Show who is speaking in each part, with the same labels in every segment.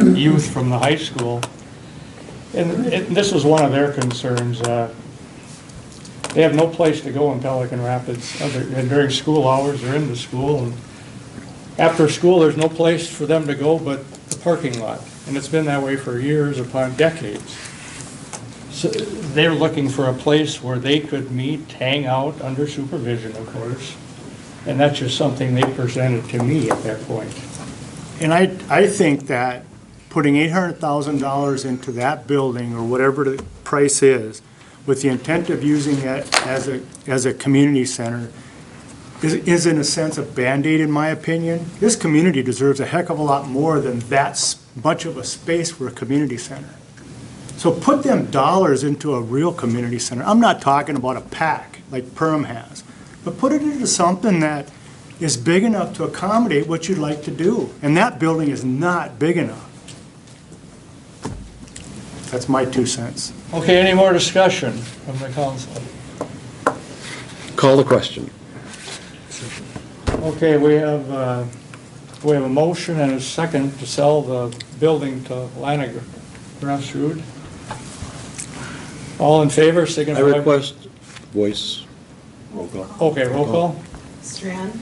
Speaker 1: youth from the high school. And and this was one of their concerns. uh, They have no place to go in Pelican Rapids other- and during school hours. They're in the school. and After school, there's no place for them to go but the parking lot. And it's been that way for years upon decades. So They're looking for a place where they could meet, hang out, under supervision, of course. And that's just something they presented to me at that point.
Speaker 2: And I, I think that putting eight hundred thousand dollars into that building, or whatever the price is, with the intent of using it as a, as a community center, is, is in a sense a Band-Aid, in my opinion. This community deserves a heck of a lot more than that s- much of a space for a community center. So put them dollars into a real community center. I'm not talking about a pack like Perm has, but put it into something that is big enough to accommodate what you'd like to do. And that building is not big enough. That's my two cents.
Speaker 1: Okay, any more discussion from the council?
Speaker 3: Call the question.
Speaker 1: Okay, we have, uh, we have a motion and a second to sell the building to Lanager Grassroot. All in favor,
Speaker 3: I
Speaker 1: signify.
Speaker 3: request voice. Roll call.
Speaker 1: Okay, roll call.
Speaker 4: Strand,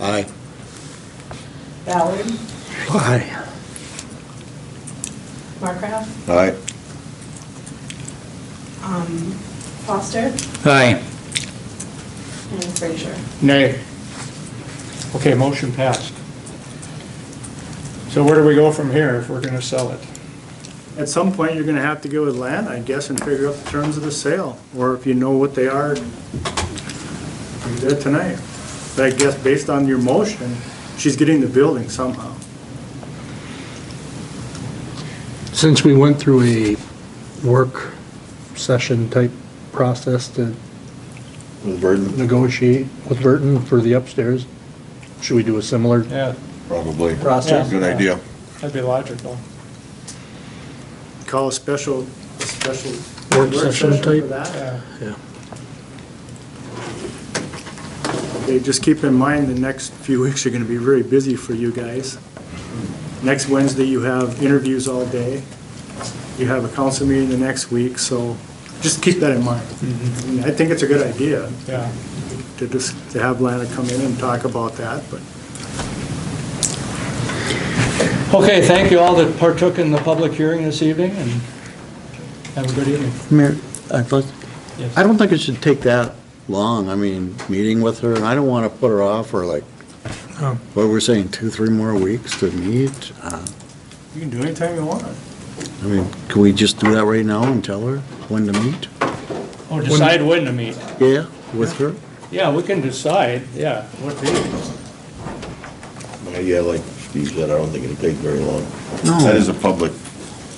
Speaker 3: Aye.
Speaker 4: Ballard,
Speaker 3: Aye.
Speaker 4: Markraff,
Speaker 3: Aye.
Speaker 4: um, Foster,
Speaker 3: Aye.
Speaker 4: and Frazier.
Speaker 1: Nay. Okay, motion passed. So where do we go from here if we're going to sell it?
Speaker 2: At some point, you're gonna have to go with land, I guess, and figure out the terms of the sale, or if you know what they are, do that tonight. But I guess based on your motion, she's getting the building somehow.
Speaker 5: Since we went through a work session type process to
Speaker 3: With burden?
Speaker 5: negotiate with Burton for the upstairs, should we do a similar
Speaker 1: Yeah,
Speaker 3: Probably.
Speaker 5: process?
Speaker 1: Good idea. that'd be logical.
Speaker 2: call a special, a special.
Speaker 5: Work session type?
Speaker 2: For that.
Speaker 1: Yeah.
Speaker 2: Okay, just keep in mind, the next few weeks are gonna be very busy for you guys. Next Wednesday, you have interviews all day. You have a council meeting the next week, so just keep that in mind. I
Speaker 5: Mm-hmm.
Speaker 2: mean, I think it's a good idea
Speaker 1: Yeah.
Speaker 2: to just, to have Lana come in and talk about that, but
Speaker 1: Okay, thank you all that partook in the public hearing this evening, and have a good evening.
Speaker 3: Mayor, I'd like-
Speaker 1: Yes.
Speaker 3: I don't think it should take that long, I mean, meeting with her, and I don't want to put her off for like, what we're saying, two, three more weeks to meet? Uh,
Speaker 2: you can do it anytime you want.
Speaker 3: I mean, can we just do that right now and tell her when to meet?
Speaker 1: Or decide when to meet.
Speaker 3: Yeah, with her?
Speaker 1: Yeah, we can decide, yeah, what date.
Speaker 6: Yeah, like Steve said, I don't think it'll take very long.
Speaker 3: No.
Speaker 6: That is a public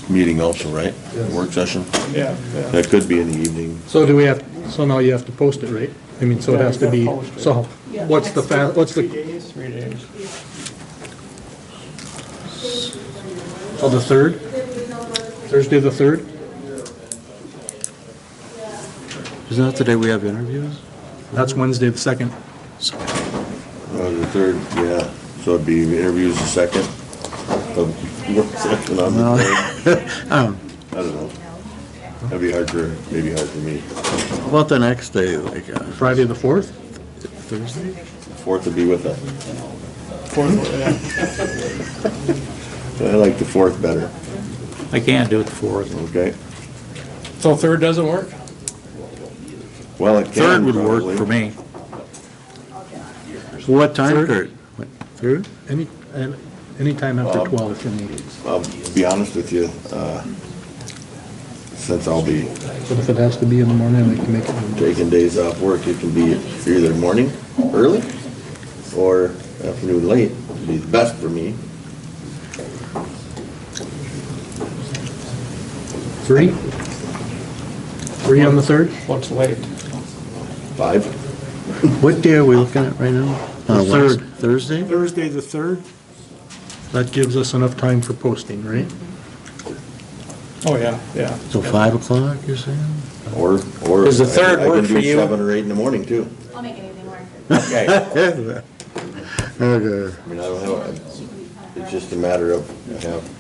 Speaker 6: meeting also, right? Work session?
Speaker 1: yeah. yeah.
Speaker 6: That could be in the evening.
Speaker 5: So do we have, so now you have to post it, right? I mean, so it has to be, so what's the, fa- what's the,
Speaker 1: days? Three days.
Speaker 5: oh, the 3rd? Thursday, the 3rd?
Speaker 3: Isn't that the day we have interviews?
Speaker 5: That's Wednesday, the 2nd.
Speaker 3: So-
Speaker 6: Uh, the third, yeah. So it'd be interviews the second. um, Work session on the third.
Speaker 3: Um,
Speaker 6: I don't know. That'd be hard for, maybe hard for me.
Speaker 3: How about the next day, like uh,
Speaker 5: Friday, the 4th?
Speaker 3: Thursday?
Speaker 6: Fourth would be with us.
Speaker 1: Fourth, yeah.
Speaker 6: I like the fourth better,
Speaker 7: I can't do it for it.
Speaker 6: okay?
Speaker 1: So third doesn't work?
Speaker 6: Well, it can
Speaker 7: Third would work
Speaker 6: probably.
Speaker 7: for me.
Speaker 3: What time,
Speaker 5: Third.
Speaker 3: Kurt? What, Third?
Speaker 5: Any, and anytime after 12 for me.
Speaker 6: I'll be honest with you, uh, since I'll be
Speaker 5: But if it has to be in the morning, we can make it. in the morning.
Speaker 6: taking days off work, it can be either morning, early, or afternoon, late, would be the best for me.
Speaker 5: 3? 3 on the 3rd?
Speaker 1: What's late?
Speaker 6: Five,
Speaker 3: What day are we looking at right now?
Speaker 5: The
Speaker 3: Uh, Wed-
Speaker 5: third.
Speaker 3: Thursday?
Speaker 2: Thursday, the third?
Speaker 5: That gives us enough time for posting, right?
Speaker 1: Oh, yeah, yeah.
Speaker 3: So 5 o'clock, you're saying?
Speaker 6: or, or.
Speaker 7: Does the third
Speaker 6: I- I can
Speaker 7: work
Speaker 6: do
Speaker 7: for you?
Speaker 6: Seven or eight in the morning, too.
Speaker 8: I'll make anything work.
Speaker 7: Okay.
Speaker 3: Okay.
Speaker 6: I mean, I don't have, a- it's just a matter of, I have